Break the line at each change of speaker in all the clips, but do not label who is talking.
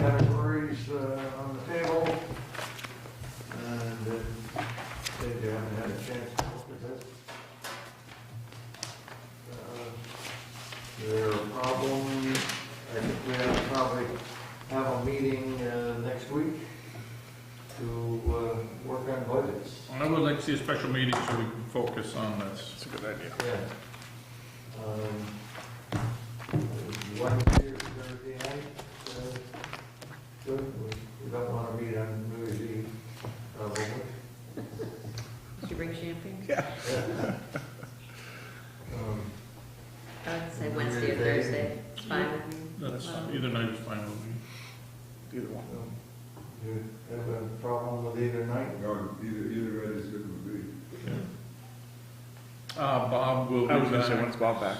uh, uh, Uh, meeting uh, next week to uh, work on budgets.
I would like to see a special meeting so we can focus on this.
That's a good idea.
Yeah. Um, Wednesday or Thursday night, uh, good, we we don't want to meet on New Year's Eve. probably.
Did you bring champagne?
Um,
I would say Wednesday or Thursday, it's fine with me.
That's,
Well,
either night is fine with me.
Either one.
um, You have a problem with either night?
No, either, either way is good with me.
Uh, Bob will be
I was gonna
back,
say, when's
so
Bob back?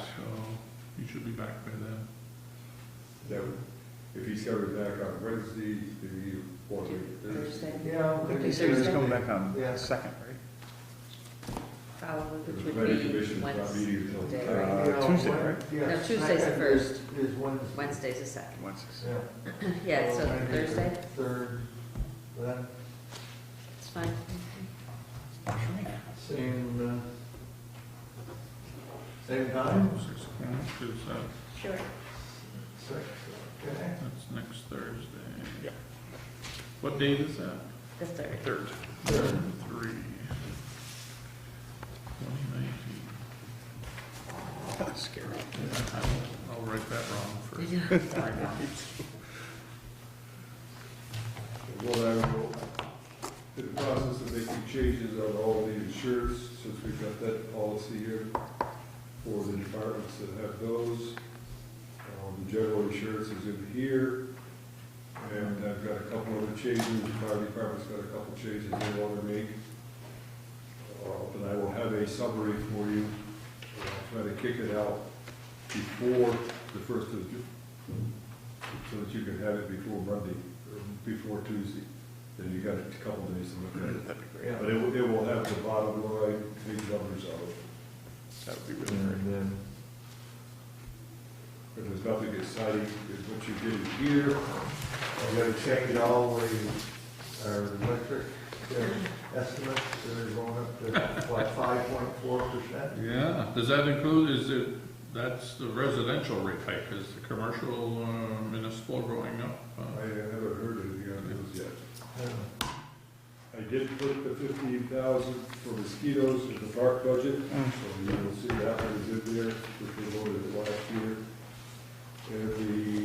you should be back by then.
That would, if he's coming back on Wednesday, then you want to.
Thursday,
Yeah.
He
maybe
said he was coming
Thursday.
back on
Yeah.
second, right?
probably,
The
which would
planning
be
commission's not
Wednesday.
meeting until.
Wednesday.
You
Uh,
know,
Tuesday,
Wed-
right?
yeah,
No, Tuesday's the
second
first.
is- Is Wednesday.
Wednesday's the second.
Wednesdays.
Yeah.
Yeah, so
maybe the
Thursday,
Third, that
it's fine.
same, uh, same time,
Six o'clock is, uh,
Sure.
six, okay.
that's next Thursday.
Yep.
What date is that?
The third.
Third.
Third.
Three. Twenty nineteen.
That's scary.
Yeah, I'll- I'll write that wrong first.
Well, I will, in the process of making changes on all the insurance, since we've got that policy here for the departments that have those. Um, the general insurance is in here, and I've got a couple other changes, the fire department's got a couple changes they want to make. Uh, but I will have a summary for you, and I'll try to kick it out before the first of Ju- so that you can have it before Monday, or before Tuesday, then you got a couple days to look at it.
That'd be great.
Yeah.
But it will, it will have the bottom line, big numbers on it,
That would be really great.
And then
but there's nothing exciting, is what you did here,
I'm gonna uh, change all the, our electric uh, estimates, they're going up to like five point four percent.
Yeah, does that include, is it, that's the residential rate hike, is the commercial uh, municipal going up?
I
Oh,
uh,
haven't heard anything on those yet. I did put the fifteen thousand for mosquitoes in the park budget,
Mm.
so you'll see that one is in there, which we voted last year. And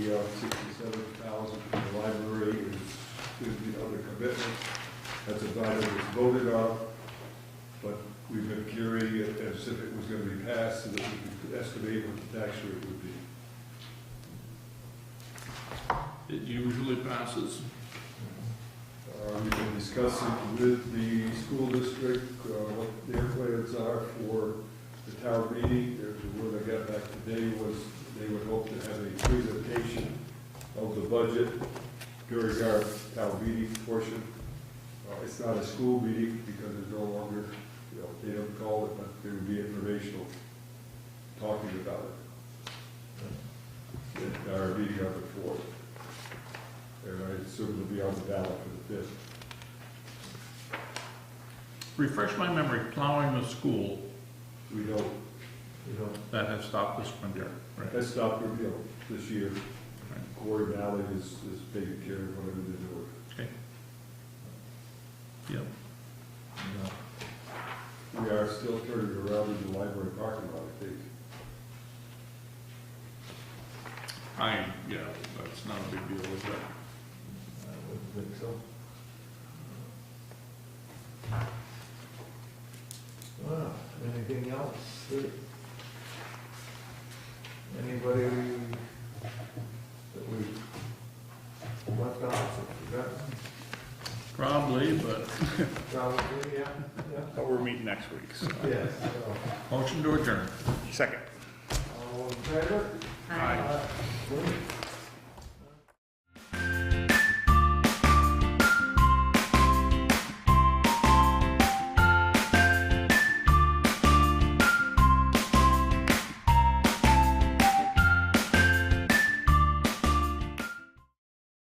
the uh, sixty-seven thousand for the library is, is the other commitment, that's a item that's voted on, but we've been carrying it as if it was gonna be passed, so that we could estimate what the tax rate would be.
It usually passes.
Uh, We've been discussing with the school district uh, what their plans are for the town meeting. There's a word I got back today was they would hope to have a presentation of the budget during our town meeting portion. Uh, It's not a school meeting because it's no longer, you know, they don't call it, but there would be informational talking about it. At our meeting on the fourth. And I assume it'll be on the ballot for the fifth.
Refresh my memory, plowing the school,
We don't,
You know,
that has stopped this winter, right?
that's not revealed this year. Corey Valley is, is taking care of whatever they're doing.
Okay. Yep,
you know.
We are still turning around in the library parking lot, I think.
I, yeah, that's not a big deal, is it?
I wouldn't think so. Well, anything else? Anybody that we left off, forgot,
Probably, but,
probably, yeah, yeah.
But we're meeting next week, so.
Yes,
motion to adjourn.
Second.
so, all in favor?
Hi.
Aye. Good.